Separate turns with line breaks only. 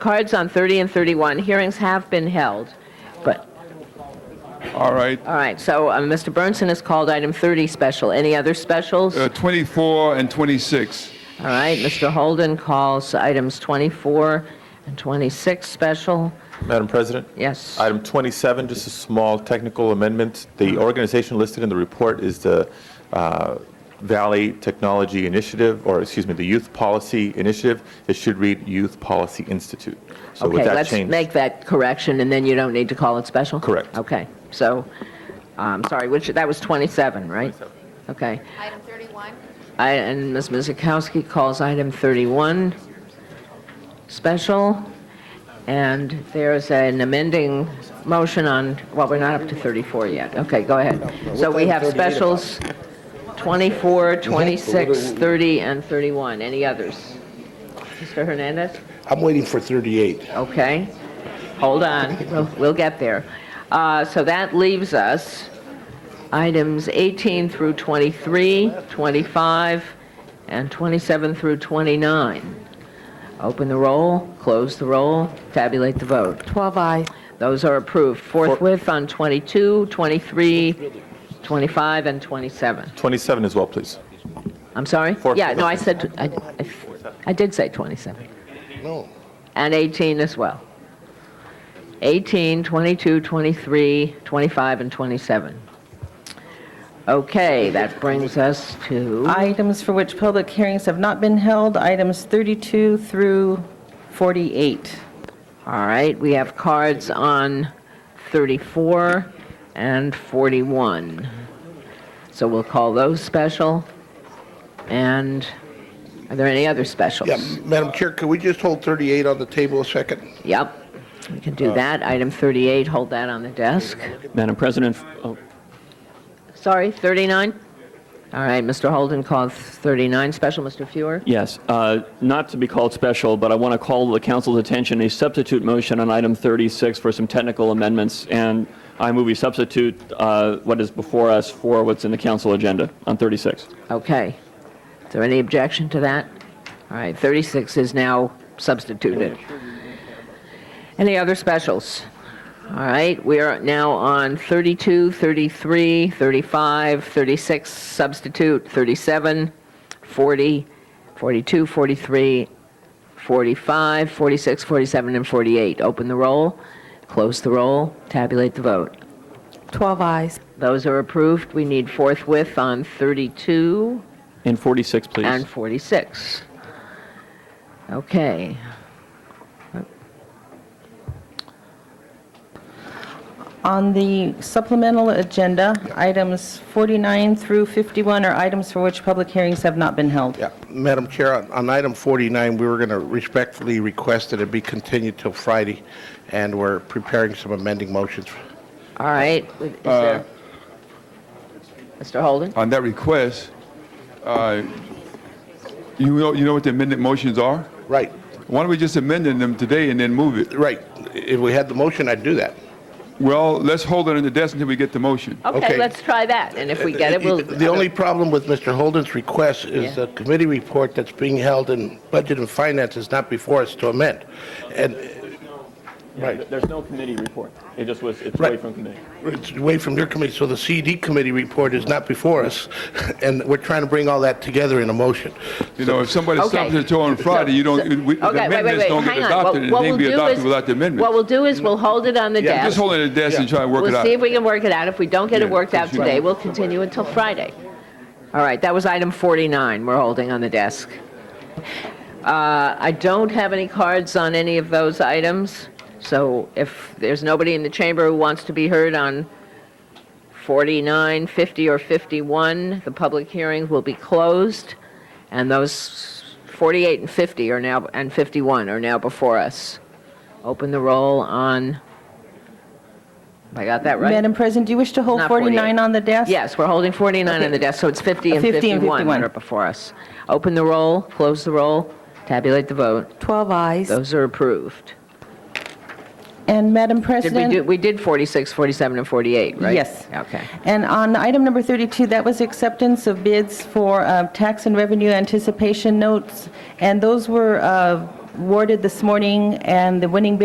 Cards on 30 and 31, hearings have been held, but,
All right,
all right, so uh, Mr. Burnson has called item 30 special. Any other specials?
uh, 24 and 26.
All right, Mr. Holden calls items 24 and 26 special.
Madam President?
Yes.
Item 27, just a small technical amendment. The organization listed in the report is the uh, Valley Technology Initiative, or excuse me, the Youth Policy Initiative. It should read Youth Policy Institute. So with
Okay,
that
let's
change.
make that correction, and then you don't need to call it special?
Correct.
Okay, so, I'm sorry, which, that was 27, right?
27.
Okay.
Item 31,
I- And Ms. Mizakowski calls item 31 special, and there's an amending motion on, well, we're not up to 34 yet. Okay, go ahead. So we have specials 24, 26, 30, and 31. Any others? Mr. Hernandez?
I'm waiting for 38.
Okay, hold on, we'll, we'll get there. Uh, So that leaves us items 18 through 23, 25, and 27 through 29. Open the roll, close the roll, tabulate the vote.
12 I.
Those are approved forthwith on 22, 23, 25, and 27.
27 as well, please.
I'm sorry?
Forthwith.
Yeah, no, I said, I, I- I did say 27.
No.
And 18 as well. 18, 22, 23, 25, and 27. Okay, that brings us to,
Items for which public hearings have not been held, items 32 through 48.
all right, we have cards on 34 and 41. So we'll call those special. And are there any other specials?
Yeah, Madam Chair, could we just hold 38 on the table a second?
Yep, we can do that. Item 38, hold that on the desk.
Madam President, f- oh,
Sorry, 39? All right, Mr. Holden called 39 special, Mr. Fuhr.
yes, uh, not to be called special, but I want to call the council's attention a substitute motion on item 36 for some technical amendments, and I move we substitute uh, what is before us for what's in the council agenda on 36.
Okay. Is there any objection to that? All right, 36 is now substituted. Any other specials? All right, we are now on 32, 33, 35, 36, substitute, 37, 40, 42, 43, 45, 46, 47, and 48. Open the roll, close the roll, tabulate the vote.
12 I's.
Those are approved. We need forthwith on 32
And 46, please.
and 46. Okay.
On the supplemental agenda, items 49 through 51 are items for which public hearings have not been held.
Yeah, Madam Chair, on- on item 49, we were going to respectfully request that it be continued till Friday, and we're preparing some amending motions.
All right. Is
Uh,
there- Mr. Holden?
On that request, uh, you know, you know what the amended motions are?
Right,
Why don't we just amend them today and then move it?
right. If we had the motion, I'd do that.
Well, let's hold it on the desk until we get the motion.
Okay,
okay.
let's try that, and if we get it, we'll...
The only problem with Mr. Holden's request is
Yeah.
the committee report that's being held in Budget and Finance is not before us to amend. And, right.
There's no committee report. It just was, it's
Right.
away from committee.
It's away from your committee, so the CD committee report is not before us, and we're trying to bring all that together in a motion.
You know, if somebody
Okay.
stops at you on Friday, you
So-
don't, we- the
Okay, wait, wait,
amendments
wait,
don't get
hang on.
adopted,
What-
and
what
they'd
we'll
be
do
adopted
is-
without the
What
amendment.
we'll do is, we'll hold it on the
Yeah,
Just
desk.
hold it on the desk and try and work it
We'll
out.
see if we can work it out. If we don't get it
Yeah,
worked out
that's right.
today, we'll continue until Friday. All right, that was item 49 we're holding on the desk. Uh, I don't have any cards on any of those items, so if there's nobody in the chamber who wants to be heard on 49, 50, or 51, the public hearing will be closed, and those 48 and 50 are now, and 51 are now before us. Open the roll on, I got that right?
Madam President, do you wish to hold
Not
49 on the desk?
Yes, we're holding 49 on the
Okay.
desk, so it's 50 and
50 and
51 that
51.
are before us. Open the roll, close the roll, tabulate the vote.
12 I's.
Those are approved.
And Madam
Did
President?
we do, we did 46, 47, and 48, right?
Yes.
Okay.
And on item number 32, that was acceptance of bids for uh, tax and revenue anticipation notes, and those were uh, awarded this morning, and the winning bid